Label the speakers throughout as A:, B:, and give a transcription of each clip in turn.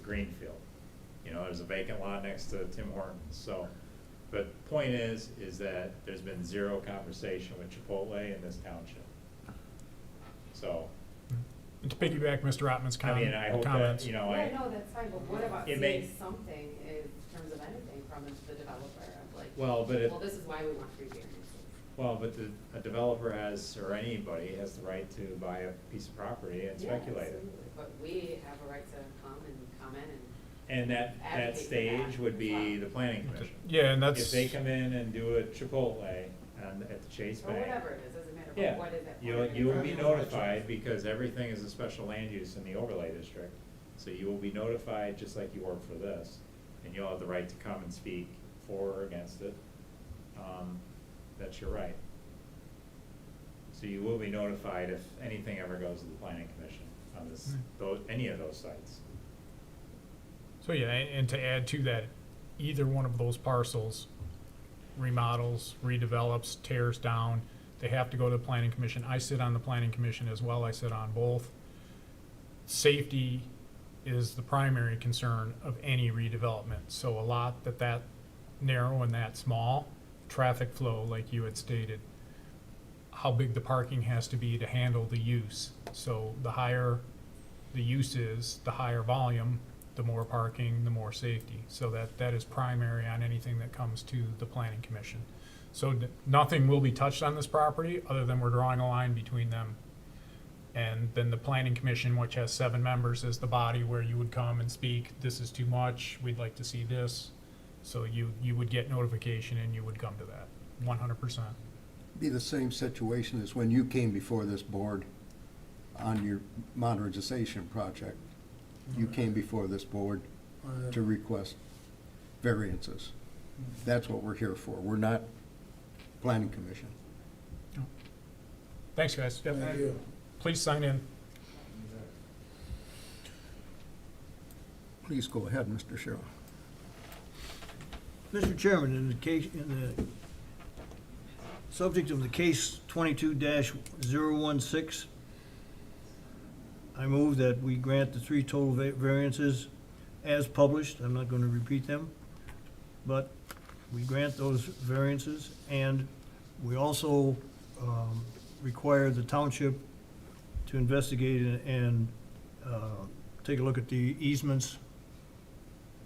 A: Greenfield. You know, there's a vacant lot next to Tim Hortons, so. But point is, is that there's been zero conversation with Chipotle in this township. So,
B: And to piggyback Mr. Ottman's
A: I mean, I
B: com-
A: hope that,
B: comments,
A: you know,
C: Yeah,
A: I,
C: no, that's fine, but what about
A: It may-
C: saying something in terms of anything from the developer of like,
A: well, but it,
C: well, this is why we want free variances.
A: well, but the, a developer has, or anybody has the right to buy a piece of property and
C: Yeah,
A: speculate it.
C: absolutely. But we have a right to come and comment and,
A: And that, that
C: Advocate for
A: stage
C: that
A: would be
C: as well.
A: the planning commission.
B: yeah, and
A: If
B: that's,
A: they come in and do a Chipotle on, at the Chase
C: or
A: Bank.
C: whatever it is, doesn't matter,
A: Yeah,
C: but what is that?
A: you,
C: part
A: you will
C: of
A: be
C: it?
A: notified because everything is a special land use in the overlay district. So you will be notified just like you were for this, and you'll have the right to come and speak for or against it. Um, That's your right. So you will be notified if anything ever goes to the planning commission on
D: Hmm.
A: this,
B: Right.
A: those, any of those sites.
B: so yeah, and and to add to that, either one of those parcels remodels, redevelops, tears down, they have to go to the planning commission. I sit on the planning commission as well, I sit on both. Safety is the primary concern of any redevelopment, so a lot that that narrow and that small, traffic flow, like you had stated, how big the parking has to be to handle the use. So the higher the use is, the higher volume, the more parking, the more safety. So that, that is primary on anything that comes to the planning commission. So n- nothing will be touched on this property, other than we're drawing a line between them. And then the planning commission, which has seven members, is the body where you would come and speak, this is too much, we'd like to see this. So you, you would get notification and you would come to that, one hundred percent.
E: Be the same situation as when you came before this board on your modernization project. You came before this board to request variances. That's what we're here for. We're not planning commission.
B: Thanks, guys.
D: Thank you.
B: Please sign in.
E: Please go ahead, Mr. Cheryl.
D: Mr. Chairman, in the case, in the subject of the case twenty-two 16 I move that we grant the three total va- variances as published. I'm not gonna repeat them. But we grant those variances and we also, um, require the township to investigate and- and, uh, take a look at the easements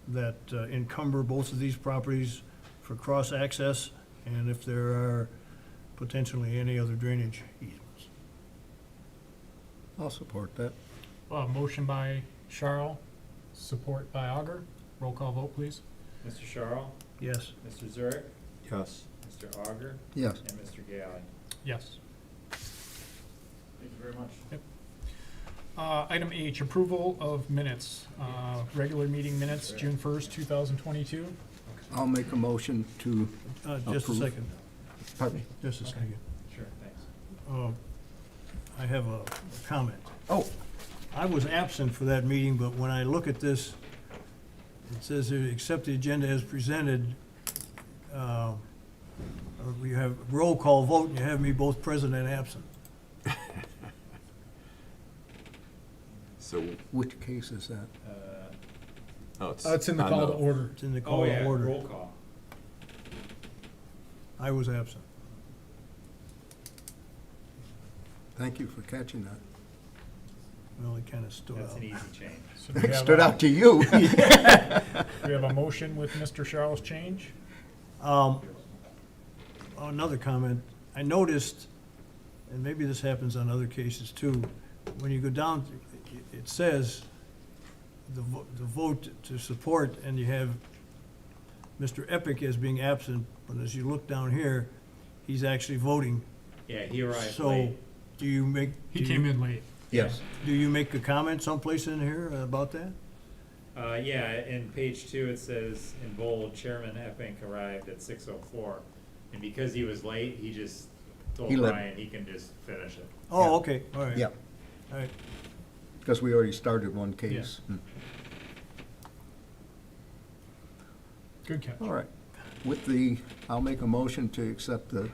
D: that uh, encumber both of these properties for cross-access, and if there are potentially any other drainage easements.
E: I'll support that.
B: Uh, motion by Charles, support by Augur. Roll call vote, please.
A: Mr. Charles,
D: Yes,
A: Mr. Zurich,
E: Yes.
A: Mr. Auger,
E: Yes.
A: and Mr. Galley.
B: Yes.
A: Thank you very much.
B: Uh, item H, approval of minutes, uh, regular meeting minutes, June first, two thousand twenty-two.
E: I'll make a motion to,
D: Uh, just a
E: Approve.
D: second,
E: pardon me?
D: just a second.
A: Sure, thanks.
D: Uh, I have a comment.
E: Oh,
D: I was absent for that meeting, but when I look at this, it says here, accept the agenda as presented. uh, or We have roll call vote, and you have me both present and absent.
F: So,
E: which case is that?
A: Uh,
F: oh, it's.
B: Uh, it's in the
F: on
B: call to order.
D: It's in the
A: Oh,
D: call
A: yeah,
D: to order.
A: roll call.
D: I was absent.
E: Thank you for catching that.
D: Well, it kind of stood
A: That's
D: out.
A: an easy change.
B: So do we have
E: Stood
B: a-
E: out to you.
B: We have a motion with Mr. Charles' change.
D: Um, Oh, Another comment, I noticed, and maybe this happens on other cases too, when you go down, it- it says the vo- the vote to support, and you have Mr. Epic as being absent, but as you look down here, he's actually voting.
A: Yeah, he arrived
D: So
A: late.
D: do you make, do
B: He came
D: you,
B: in late.
E: Yes.
D: do you make a comment someplace in here about that?
A: Uh, yeah, in page two, it says in bold, Chairman Epping arrived at six oh four. And because he was late, he just told
E: He let-
A: Brian he can just finish it.
E: Yeah.
D: Oh, okay, all right.
E: Yeah,
D: All right,
E: because we already started one case. Hmm.
B: Good catch.
E: All right. With the, I'll make a motion to accept the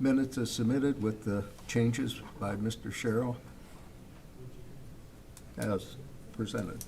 E: minutes as submitted with the changes by Mr. Sherrill as presented.